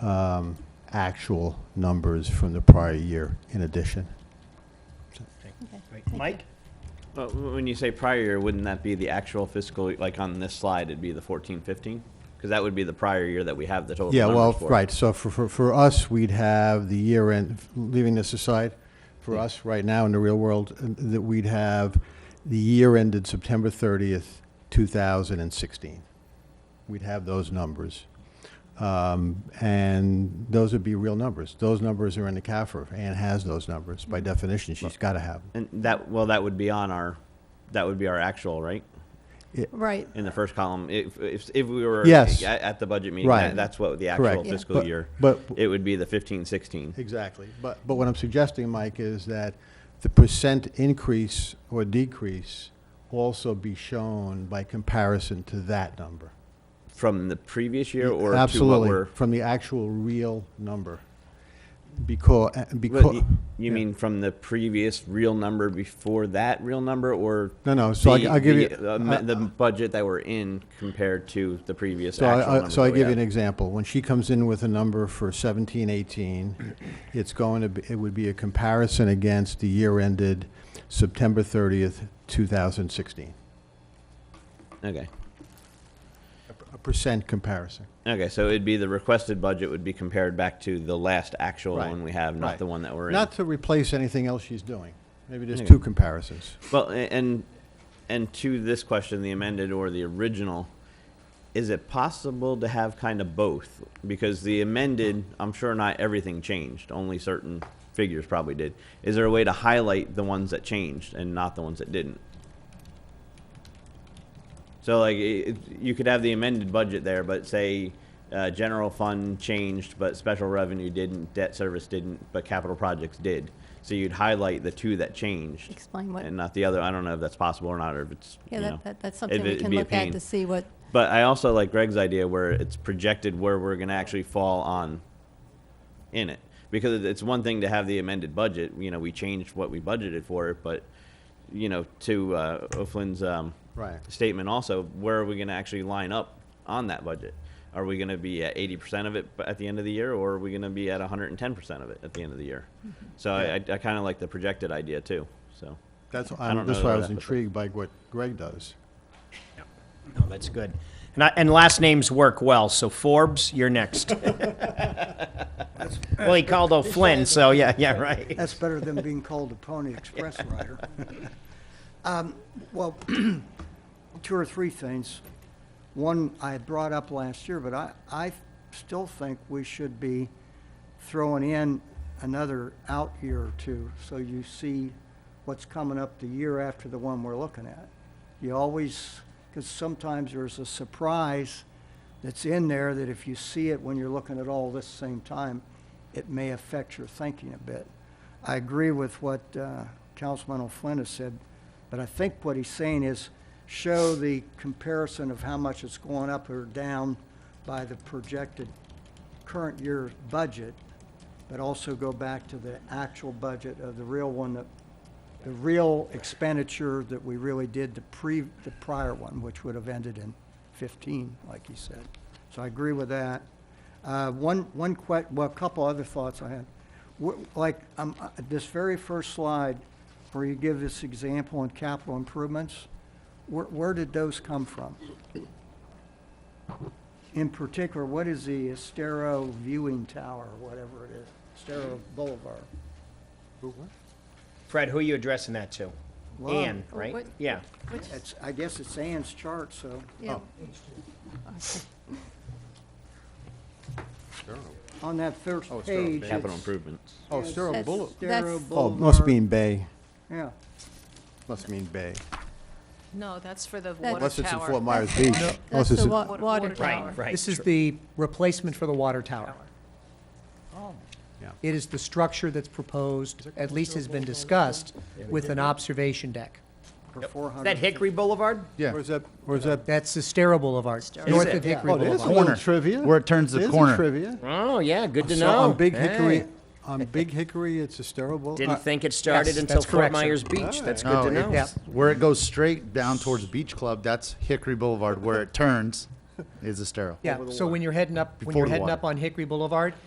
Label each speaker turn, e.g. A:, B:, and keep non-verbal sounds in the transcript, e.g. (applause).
A: um, actual numbers from the prior year in addition.
B: Great. Mike?
C: But w- when you say prior year, wouldn't that be the actual fiscal, like on this slide, it'd be the fourteen, fifteen? Because that would be the prior year that we have the total
A: Yeah, well,
C: numbers for.
A: right, so for, for, for us, we'd have the year end, leaving this aside, for us, right now, in the real world, uh, that we'd have the year ended September thirtieth, two thousand and sixteen. We'd have those numbers. Um, and those would be real numbers. Those numbers are in the CAFR. Ann has those numbers.
C: Mm-hmm.
A: By definition, she's gotta have them.
C: And that, well, that would be on our, that would be our actual, right?
D: Right.
C: In the first column, if, if, if we were
A: Yes.
C: a- at the budget meeting,
A: Right.
C: that- that's what the
A: Correct.
C: actual
A: Yeah.
C: fiscal
A: But-
C: year,
A: But,
C: it would be the fifteen, sixteen.
A: Exactly. But, but what I'm suggesting, Mike, is that the percent increase or decrease also be shown by comparison to that number.
C: From the previous year or to what
A: Absolutely,
C: we're?
A: From the actual real number. Because, uh,
C: Well,
A: because,
C: y- You mean from the previous real number before that real number, or?
A: No, no, so I-
C: the-
A: I'll give you-
C: the, uh, ma-
A: I-
C: The budget that we're in compared to the previous
A: so
C: actual
A: I, I-
C: number.
A: so I
C: that we
A: give you
C: have.
A: an example. When she comes in with a number for seventeen, eighteen, it's going to, be it would be a comparison against the year ended September thirtieth, two thousand sixteen.
C: Okay,
A: A percent comparison.
C: okay, so it'd be the requested budget would be compared back to the last actual
A: Right,
C: one we have,
A: right.
C: not the one that we're in.
A: Not to replace anything else she's doing. Maybe just
C: Yeah.
A: two comparisons.
C: Well, a- and, and to this question, the amended or the original, is it possible to have kind of both? Because the amended, I'm sure not everything changed, only certain figures probably did. Is there a way to highlight the ones that changed and not the ones that didn't? So like, i- it, you could have the amended budget there, but say, uh, general fund changed, but special revenue didn't, debt service didn't, but capital projects did. So you'd highlight the two that changed.
D: Explain what-
C: And not the other, I don't know if that's possible or not, or if it's, you
D: Yeah,
C: know.
D: that, that, that's
C: if
D: something we
C: it'd
D: can
C: be a
D: look at
C: pain.
D: to see what,
C: But I also like Greg's idea where it's projected where we're gonna actually fall on in it. Because it's one thing to have the amended budget, you know, we changed what we budgeted for it, but, you know, to, uh, O'Flynn's, um,
A: Right.
C: statement also, where are we gonna actually line up on that budget? Are we gonna be at eighty percent of it b- at the end of the year, or are we gonna be at hundred and ten percent of it at the end of the year?
D: Mm-hmm.
C: So I, I I kinda like the projected idea too, so.
A: That's,
C: I don't
A: that's
C: know
A: why I
C: where
A: was
C: that-
A: intrigued by what Greg does.
B: No, that's good. And, I, and last names work well, so Forbes, you're (laughs) next. well, he called O'Flynn, so yeah, yeah, right.
E: That's better than being called a Pony
B: (laughs)
E: Express rider. Um, Well, (clears throat) two or three things. One I had brought up last year, but I, I still think we should be throwing in another out year or two, so you see what's coming up the year after the one we're looking at. You always, because sometimes there's a surprise that's in there that if you see it when you're looking at all this same time, it may affect your thinking a bit. I agree with what uh, Councilman O'Flynn has said, but I think what he's saying is show the comparison of how much it's going up or down by the projected current year's budget, but also go back to the actual budget of the real one that, the real expenditure that we really did the pre, the prior one, which would have ended in fifteen, like he said. So I agree with that. Uh, one, one que, well, a couple other thoughts I had. Wh- Like, um, uh, this very first slide, where you give this example on capital improvements, where, where did those come from? In particular, what is the Estero Viewing Tower, or whatever it is, Estero Boulevard?
B: Fred, who are you addressing that to?
E: Well,
B: Ann,
D: Oh,
B: right?
D: what-
B: Yeah.
D: which,
E: It's, I guess it's Ann's chart, so.
D: yeah,
E: On that first page. it's
C: Capital improvements.
A: Oh, Estero
D: That's-
A: Boulevard.
E: Estero
D: That's-
A: Oh,
E: Boulevard.
A: must mean Bay,
E: Yeah,
A: must mean Bay.
F: No, that's for the
D: That-
F: water
A: Unless it's in Fort
F: tower.
A: Myers Beach. Unless
D: that's
A: it's
D: the
A: in-
D: wa-
F: Water-
D: water
F: water
D: tower.
B: Right, right.
G: This is the replacement for the water tower.
A: Yeah.
G: It is the structure that's proposed, at least has been discussed, with an observation deck.
E: for four
B: Is
E: hundred.
B: that Hickory Boulevard?
A: Where's that, where's that?
G: That's the Stara Boulevard,
F: Stara.
G: north
B: Is
G: of
B: it?
G: Hickory
A: Oh, there's a
G: Boulevard.
A: little trivia.
H: Where it turns the
A: There's a
H: corner.
A: trivia.
B: Oh, yeah, good to
A: So
B: know.
A: on Big Hickory,
B: Hey.
A: on Big Hickory, it's Estero Boulevard.
B: Didn't think it started
G: uh, Yes,
B: until
G: that's
B: Fort
G: correct, sir.
B: Myers Beach. That's good
H: No,
B: to know.
H: it's- Where it goes straight down towards Beach Club, that's Hickory Boulevard. Where it turns,
D: is a sterile.
G: Yeah, so when you're heading up, when
D: Before
G: you're
D: the
G: heading
D: water.
G: up on Hickory Boulevard,